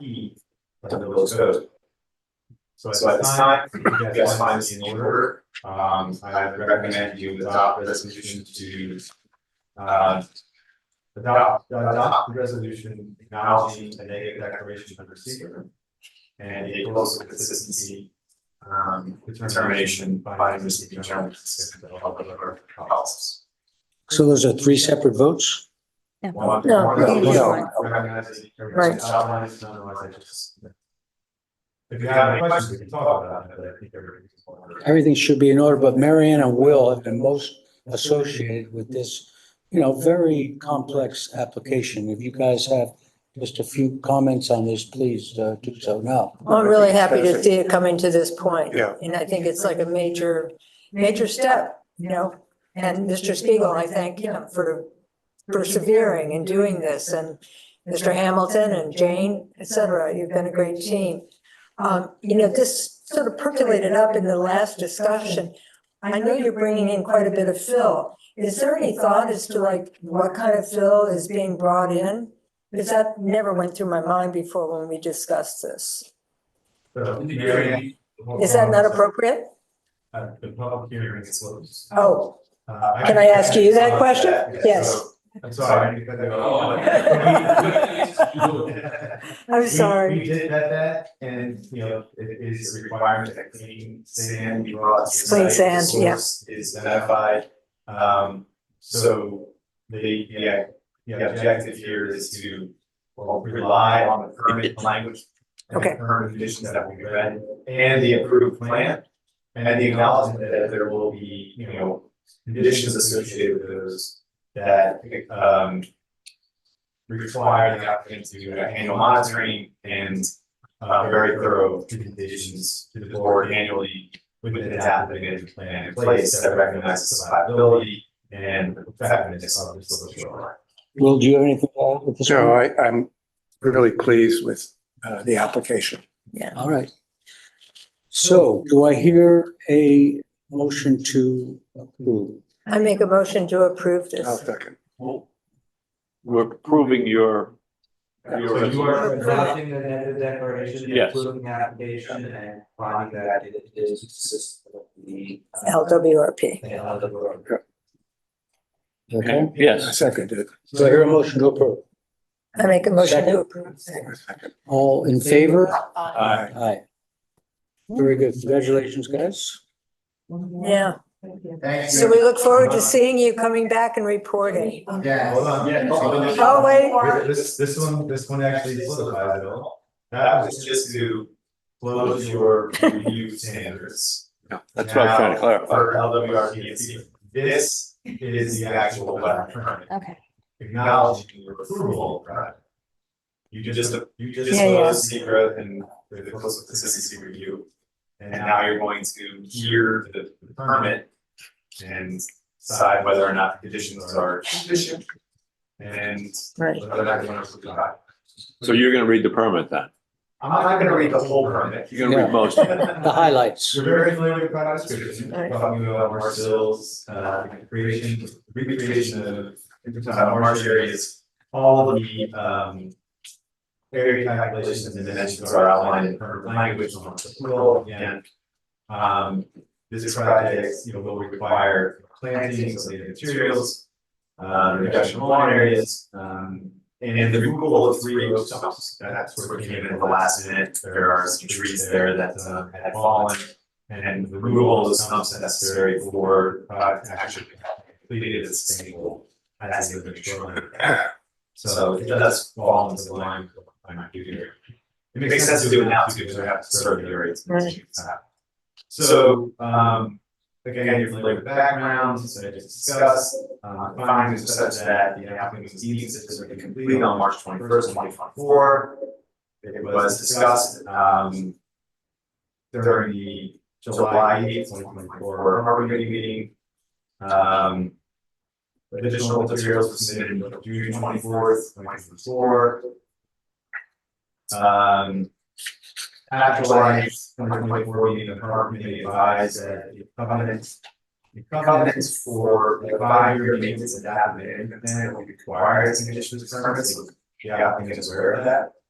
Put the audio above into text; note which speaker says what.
Speaker 1: E to the Village Code. So at this time, you guys find this in order, um, I recommend you adopt resolution to uh, adopt, adopt the resolution acknowledging the negative declaration under secret. And it goes with consistency, um, determination by the receiving general.
Speaker 2: So those are three separate votes?
Speaker 3: No,
Speaker 2: you need one.
Speaker 1: Recognizing.
Speaker 3: Right.
Speaker 1: Outline is not otherwise I just. If you have any questions, we can talk about that, but I think everybody's.
Speaker 2: Everything should be in order, but Marianne and Will have been most associated with this, you know, very complex application. If you guys have just a few comments on this, please uh, do so now.
Speaker 3: Well, I'm really happy to see it coming to this point.
Speaker 4: Yeah.
Speaker 3: And I think it's like a major, major step, you know? And Mr. Spiegel, I thank him for persevering and doing this and Mr. Hamilton and Jane, et cetera. You've been a great team. Um, you know, this sort of percolated up in the last discussion. I know you're bringing in quite a bit of fill. Is there any thought as to like what kind of fill is being brought in? Because that never went through my mind before when we discussed this. Is that not appropriate?
Speaker 1: Uh, the public hearing is closed.
Speaker 3: Oh,
Speaker 1: Uh,
Speaker 3: can I ask you that question? Yes,
Speaker 1: I'm sorry.
Speaker 3: I'm
Speaker 1: We- We
Speaker 3: sorry.
Speaker 1: did vet that and, you know, it is a requirement that clean sand be brought. to the
Speaker 3: Clean
Speaker 1: site. The
Speaker 3: sand, yeah.
Speaker 1: source Is identified. Um, so the, yeah, the objective here is to well, rely on the permit language. and the
Speaker 3: Okay.
Speaker 1: Permit conditions that we read and the approved plan. And the acknowledgement that there will be, you know, conditions associated with those that, um, require the applicant to uh, handle monitoring and uh very thorough presentations to the board annually with an adaptive mitigation plan in place that recognizes survivability and the effectiveness of the social line.
Speaker 2: Will, do you have anything to add at this
Speaker 4: So
Speaker 2: point?
Speaker 4: I, I'm really pleased with uh, the application.
Speaker 2: All right. So do I hear a motion to approve?
Speaker 3: I make a motion to approve
Speaker 4: I'll
Speaker 3: this.
Speaker 4: second.
Speaker 5: Well, We're approving your,
Speaker 1: So you are
Speaker 6: adopting the negative declaration,
Speaker 5: Yes.
Speaker 6: including the application and finding that it is consistent with the. uh,
Speaker 3: LWRP.
Speaker 6: The LWRP.
Speaker 2: Okay,
Speaker 4: I
Speaker 5: yes,
Speaker 4: second it.
Speaker 2: so I hear a motion to approve.
Speaker 3: I make a motion
Speaker 2: Second?
Speaker 3: to approve.
Speaker 4: I second.
Speaker 2: All in favor?
Speaker 3: uh,
Speaker 4: Aye.
Speaker 2: Aye. Very good. Congratulations, guys.
Speaker 3: Yeah, so we look forward to seeing you coming back and reporting.
Speaker 1: Yeah, hold on. Yeah.
Speaker 3: Oh, wait.
Speaker 1: This this one, this one actually solidifies it all. That was just to close your review standards.
Speaker 4: Yeah,
Speaker 5: that's what I was trying to clarify.
Speaker 1: For LWRP, it's- this is the actual wetland permit.
Speaker 7: Okay.
Speaker 1: acknowledging your approval of that. You just, you just
Speaker 3: Yeah, yeah.
Speaker 1: closed secret and the coastal consistency review. And now you're going to hear the the permit and decide whether or not the conditions are sufficient. And
Speaker 3: Right.
Speaker 1: whether or not you want to approve it.
Speaker 5: so you're gonna read the permit then,
Speaker 1: I'm not gonna read the whole permit.
Speaker 5: you're gonna
Speaker 2: Yeah.
Speaker 5: read most of it.
Speaker 2: The highlights.
Speaker 1: You're very familiar with product description,
Speaker 3: Right.
Speaker 1: talking about Marcel's, uh, creation, recreation of, uh, marsh areas. All of the, um, area calculations and dimensions are outlined in current language on the tool, and, um, this project, you know, will require plantings of native materials, uh, reduction of lawn areas, um, and the removal of three row stumps, that sort of came in at the last minute, there are some trees there that, uh, had fallen. And the removal of stumps necessary for, uh, to actually completed its sustainable as the control. So it does fall into the line of what I do here. It makes sense to do it now too, because I have to serve the areas.
Speaker 3: Right.
Speaker 1: So, um, again, you're familiar with the backgrounds, that I just discussed, uh, findings are such that the applicant was deemed sufficiently complete on March twenty first, twenty twenty four. It was discussed, um, during the July eighth, twenty twenty four harbor committee meeting. Um, additional materials were submitted on June twenty fourth, twenty twenty four. Um, after July twenty twenty four meeting, the harbor committee advised that the covenants the covenants for the five-year maintenance and admin, and then it will require as conditions of permits, so the applicant is aware of that.